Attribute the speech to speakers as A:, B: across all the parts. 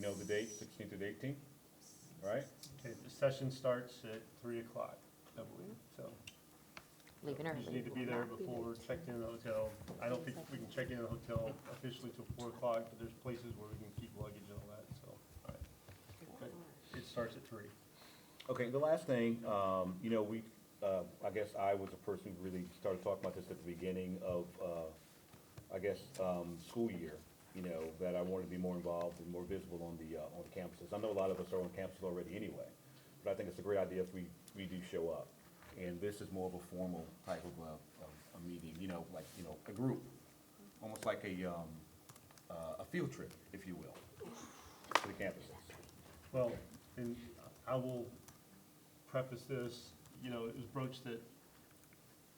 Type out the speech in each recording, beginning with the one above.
A: know the date, sixteenth and eighteenth, right? Okay, the session starts at three o'clock, I believe, so
B: Leaving
A: you just need
B: early.
A: to be there before checking in the hotel. I don't think we can check in the hotel officially till four o'clock, but there's places where we can keep luggage and all that, so, all right. But It starts at three.
C: Okay, the last thing, um, you know, we, uh, I guess I was the person who really started talking about this at the beginning of, uh, I guess, um, school year, you know, that I wanted to be more involved and more visible on the, uh, on the campuses. I know a lot of us are on campuses already anyway, but I think it's a great idea if we, we do show up. And this is more of a formal type of, uh, of a meeting, you know, like, you know, a group, almost like a, um, uh, a field trip, if you will, to the campuses.
A: Well, and I will preface this, you know, it was broached that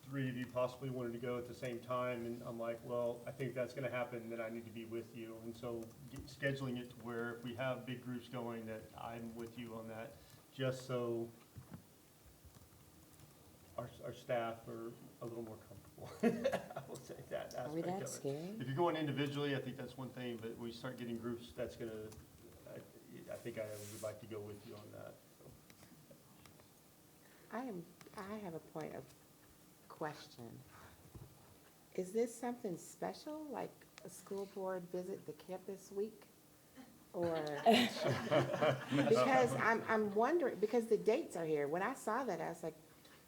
A: three of you possibly wanted to go at the same time, and I'm like, well, I think that's gonna happen, then I need to be with you. And so get- scheduling it to where if we have big groups going, that I'm with you on that, just so our, our staff are a little more comfortable. I will say that aspect
B: Are
A: of it.
B: we that scary?
A: If you're going individually, I think that's one thing, but when you start getting groups, that's gonna, I, I think I would like to go with you on that.
B: I am, I have a point of question. Is this something special, like a school board visit the campus week? Or, because I'm, I'm wondering, because the dates are here. When I saw that, I was like,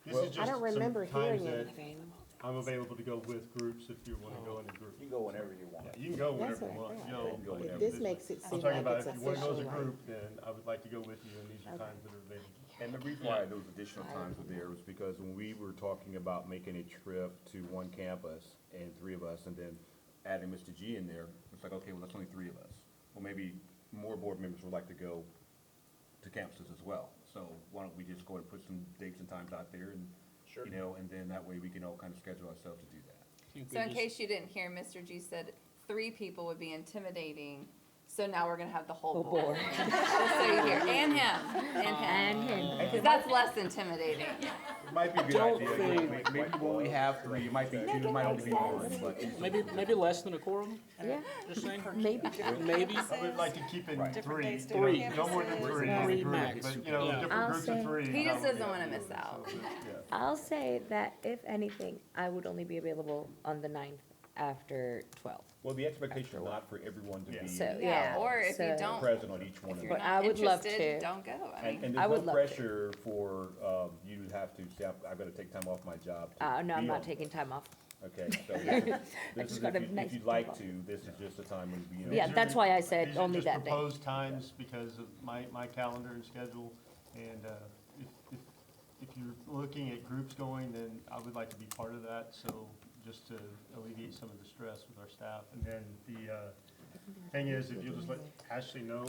A: This is
B: I
A: just
B: don't
A: some
B: remember
A: times
B: hearing
A: that
B: anything.
A: I'm available to go with groups if you wanna go in a group.
C: You can go whenever you want.
A: Yeah, You can go
B: That's
A: whenever
B: what
A: you want,
B: I
A: you
B: thought.
A: know.
C: Go
A: but
C: whenever.
B: This makes it
A: I'm
B: seem
A: talking
B: like
A: about
B: it's
A: if you wanna go as
B: official.
A: a
B: like-
A: group, then I would like to go with you, and these are
B: Okay.
A: times that are available.
C: And the reason why those additional times were there was because when we were talking about making a trip to one campus and three of us, and then adding Mr. G in there, it's like, okay, well, that's only three of us. Well, maybe more board members would like to go to campuses as well. So why don't we just go and put some dates and times out there and, you know, and then that way we can all kind of schedule ourselves to do that.
D: So in case you didn't hear, Mr. G said three people would be intimidating, so now we're gonna have the whole
B: Oh,
D: board. Just so you hear, and him, and him, because that's less intimidating.
C: It might be a good idea, you know, may- maybe we only have three, it might be two, it might only be one, but.
E: Maybe, maybe less than a quorum,
B: Yeah,
E: just saying,
B: maybe.
E: maybe.
A: I would like to keep in
C: Right.
A: three,
F: days,
E: Three.
F: different
A: no more than
F: campuses.
A: three,
E: Three
A: in a group,
E: max.
A: but, you know,
E: Yeah.
A: different
G: I'll
A: groups
G: say-
A: of three.
D: He
A: I
D: just
A: would
D: doesn't wanna
A: definitely
D: miss
A: do it, so,
D: out.
A: yeah.
G: I'll say that if anything, I would only be available on the ninth after twelve.
C: Well, the expectation is not for everyone to
A: Yeah.
C: be
G: So, yeah.
D: Or if you
G: so-
D: don't,
C: present on each one
D: if
C: of
D: you're
C: them.
G: But
D: not
G: I would love
D: interested,
G: to.
D: don't go, I
C: And, and
D: mean,
G: I
C: there's no
G: would love to.
C: pressure for, um, you to have to say, "I'm- I've got to take time off my job. to
G: Uh, no, I'm
C: be
G: not
C: on."
G: taking time off.
C: Okay, so this is- this
G: just
C: is,
G: got a
C: if you-
G: nice
C: if you'd like
G: bubble.
C: to, this is just a time when, you know.
G: Yeah,
A: These are
G: that's
A: just-
G: why I said
A: these are
G: only
A: just
G: that day.
A: proposed times because of my, my calendar and schedule, and, uh, if, if, if you're looking at groups going, then I would like to be part of that, so just to alleviate some of the stress with our staff. And then the, uh, thing is, if you'll just let Ashley know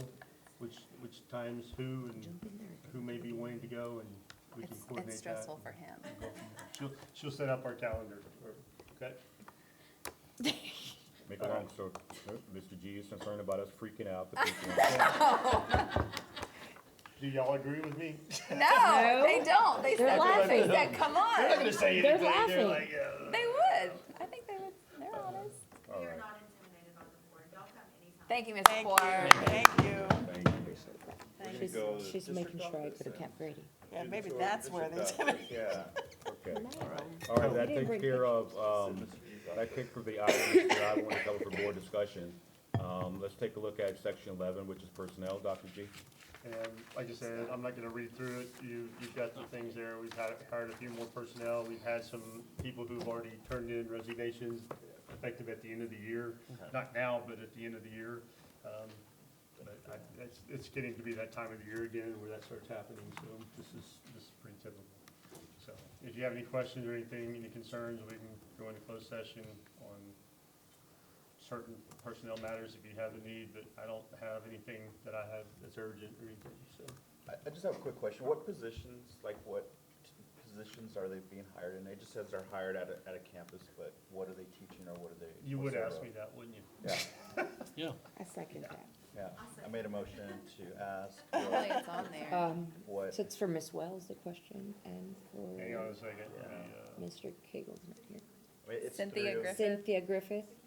A: which, which times who and who may be wanting to go, and we can
D: it's,
A: coordinate that.
D: it's stressful for him.
A: She'll, she'll set up our calendar, or- okay?
C: Make a long story, Mr. G is concerned about us freaking out. the people.
A: Do y'all agree with me?
D: No, they don't, they
G: They're
D: said, they
G: laughing.
D: said, come on,
A: say
G: They're laughing.
D: they would, I think they would, they're honest.
C: All
H: We are
C: right,
H: not intimidated by the board. Y'all come anytime.
D: Thank you, Ms.
F: Thank you,
D: Ford.
F: thank you.
C: thank you.
B: She's, she's making sure I go to Camp Grady.
F: Yeah, maybe that's where they
C: Yeah, okay. All right, that takes care of, um, that takes for the items that I want to cover for board discussion. Um, let's take a look at section eleven, which is personnel, Dr. G.
A: And like I said, I'm not gonna read through it. You, you've got the things there. We've had, hired a few more personnel. We've had some people who've already turned in resignations effective at the end of the year. Not now, but at the end of the year. Um, But I, it's, it's getting to be that time of the year again where that starts happening, so this is, this is pretty typical. So if you have any questions or anything, any concerns, we can go into closed session on certain personnel matters if you have the need, but I don't have anything that I have that's urgent or anything, so.
I: I, I just have a quick question. What positions, like what t- positions are they being hired in? It just says they're hired at a, at a campus, but what are they teaching or what are they?
A: You
I: what's
A: would
I: their
A: ask
I: role?
A: me that, wouldn't you?
C: Mm-hmm.
I: Yeah,
E: Yeah.
B: I second that.
I: yeah. I made a motion to ask
D: Hopefully
I: what-
D: it's on there.
G: Um,
I: what,
G: so it's for Miss Wells, the question, and
A: Hang on
G: for
A: a second. let me, uh,
G: Mr. Cagle's not here.
I: I mean, it's
D: Cynthia
I: through-
D: Griffin.
G: Cynthia Griffith,